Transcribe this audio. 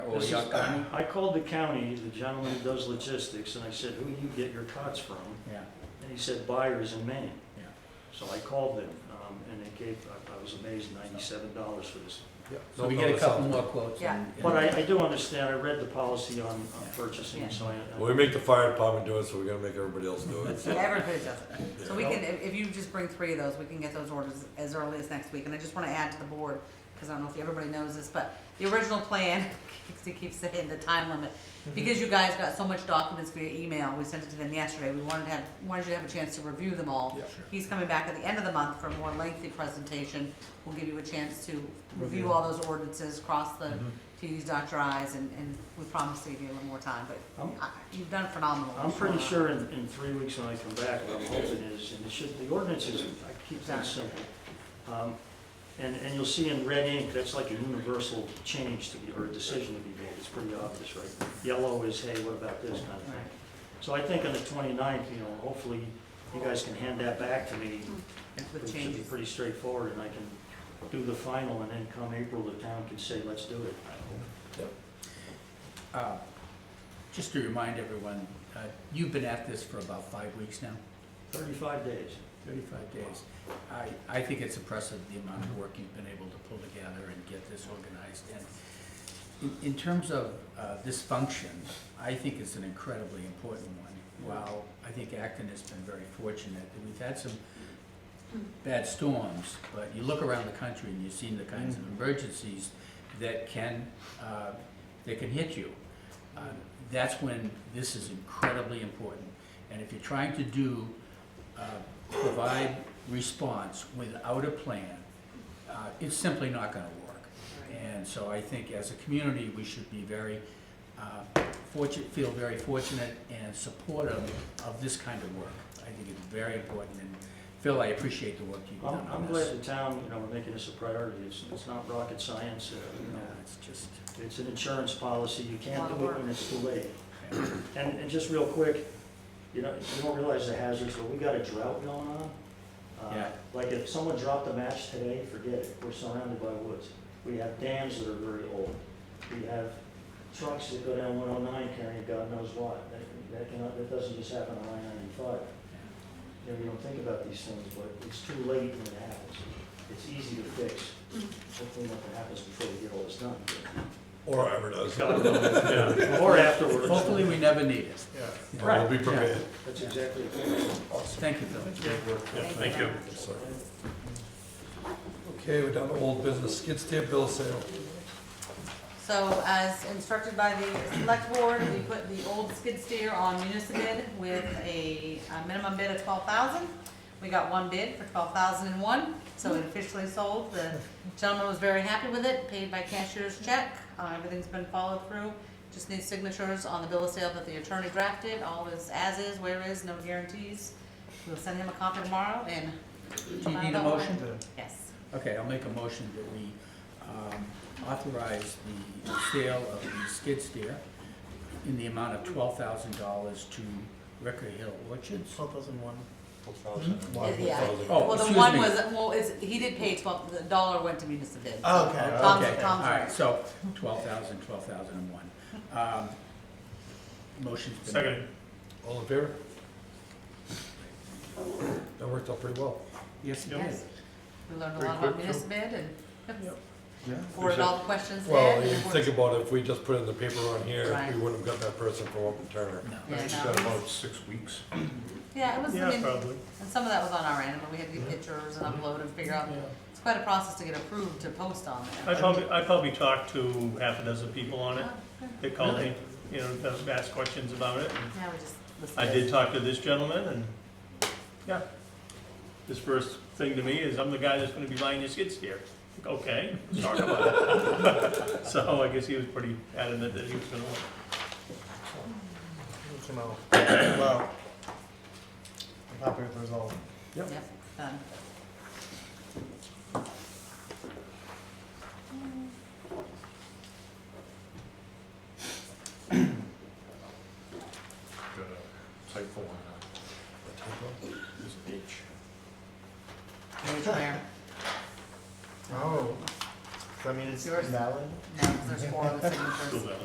This Or is- your company? I called the county, the gentleman who does logistics, and I said, who do you get your cots from? Yeah, And he said, buyers in Maine. Yeah. So I called them, um, and they gave, I- I was amazed, ninety-seven dollars for this. So we get a couple more quotes. Yeah. and- and- But I, I do understand, I read the policy on, on purchasing, so I. I- Well, we make the fire department do it, so we're gonna make everybody else do it. so- Everybody does it. So we Yeah. can, if, if you just bring three of those, we can get those orders as early as next week. And I just wanna add to the board, cause I don't know if everybody knows this, but the original plan, to keep saying the time limit, Mm-hmm. because you guys got so much documents via email, we sent it to them yesterday, we wanted to have, wanted you to have a chance to review them all. Yeah. He's coming back at the end of the month for a more lengthy presentation. We'll give you a chance to review all those ordinances, cross the Mm-hmm. T's, dot your i's, and, and we promise to give you a little more time, but I'm- I- you've done phenomenal. I'm pretty sure in, in three weeks when I come back, what I'm hoping is, and it should, the ordinance is, I keep things simple. Um, And, and you'll see in red ink, that's like a universal change to be, or a decision to be made, it's pretty obvious, right? Yellow is, hey, what about this kind of thing. So I think on the 29th, you know, hopefully you guys can hand that back to me. It With should be changes. pretty straightforward, and I can do the final, and then come April, the town can say, let's do it. uh, just to remind everyone, uh, you've been at this for about five weeks now, Thirty-five days. thirty-five days. I, I think it's impressive the amount of work you've been able to pull together and get this organized. And in, in terms of, uh, this function, I think it's an incredibly important one. While I think Acton has been very fortunate, that we've had some bad storms, but you look around the country and you've seen the kinds of emergencies that can, uh, that can hit you. Uh, That's when this is incredibly important. And if you're trying to do, uh, provide response without a plan, uh, it's simply not gonna work. And so I think as a community, we should be very uh, fortunate, feel very fortunate and supportive of this kind of work. I think it's very important, and Phil, I appreciate the work you've I'm, done I'm on glad this. the town, you know, we're making this a priority, it's, it's not rocket science, uh, you No, know, It's just, it's an insurance policy, you can't Lot of do it work. when it's too late. And, and just real quick, you know, you don't realize the hazards, but we got a drought going on. Uh, Yeah. Like if someone dropped a match today, forget it, we're surrounded by woods. We have dams that are very old. We have trucks that go down one oh nine carrying God knows what. That- That cannot, that doesn't just happen on I ninety-five. You know, we don't think about these things, but it's too late when it happens. It's easy to fix. Hopefully nothing happens before we get all this done. Or ever does. God knows, yeah. Or afterwards. hopefully, we never need it. And We'll be prepared. That's exactly it. Thank you, Phil. Thank you. So- Okay, we're down to old business, skid steer bill sale. So as instructed by the select board, we put the old skid steer on Municipid with a a minimum bid of twelve thousand. We got one bid for twelve thousand and one, so it officially sold. The gentleman was very happy with it, paid by cashier's check. Uh, Everything's been followed through. Just needs signatures on the bill of sale that the attorney drafted. All is as is, where is, no guarantees. We'll send him a copy tomorrow and. Do you need a motion? Yes. Okay, I'll make a motion that we um, authorize the sale of the skid steer in the amount of twelve thousand dollars to Ricker Hill Orchards. Twelve thousand one. Mm-hmm. Yeah. Oh, Well, the excuse one me. was, well, is, he did pay twelve, the dollar went to municipal. Okay. Tom's, Okay, all Tom's right, right. so twelve thousand, twelve thousand and one. Um, Motion's been. Second. All in favor? That worked out pretty well. Yes, it Yes. is. We learned a Pretty lot about quick, municipal and Yeah. forwarded all the questions there. Well, you think about it, if we just put in the paper on here, Right. we wouldn't have got that person for Open Turner. No. Yeah, She's no. got about six weeks. Yeah, it was, I Yeah, mean, probably. and some of that was on our end, but we had to get pictures and upload and figure out, it's quite a process to get approved to post on I there. probably, I probably talked to half a dozen people on it that called me, you know, that asked questions about it. Yeah, we just listed I it. did talk to this gentleman and, yeah. His first thing to me is, I'm the guy that's gonna be buying your skid steer. Like, Okay, sorry about it. So I guess he was pretty adamant that he was gonna, want Well, I'm happy with the result. Yep, done. Got a typo on that. There's an H. There's where. Oh, I mean it's Yours? valid? No, 'cause there's four of the signatures. to do that.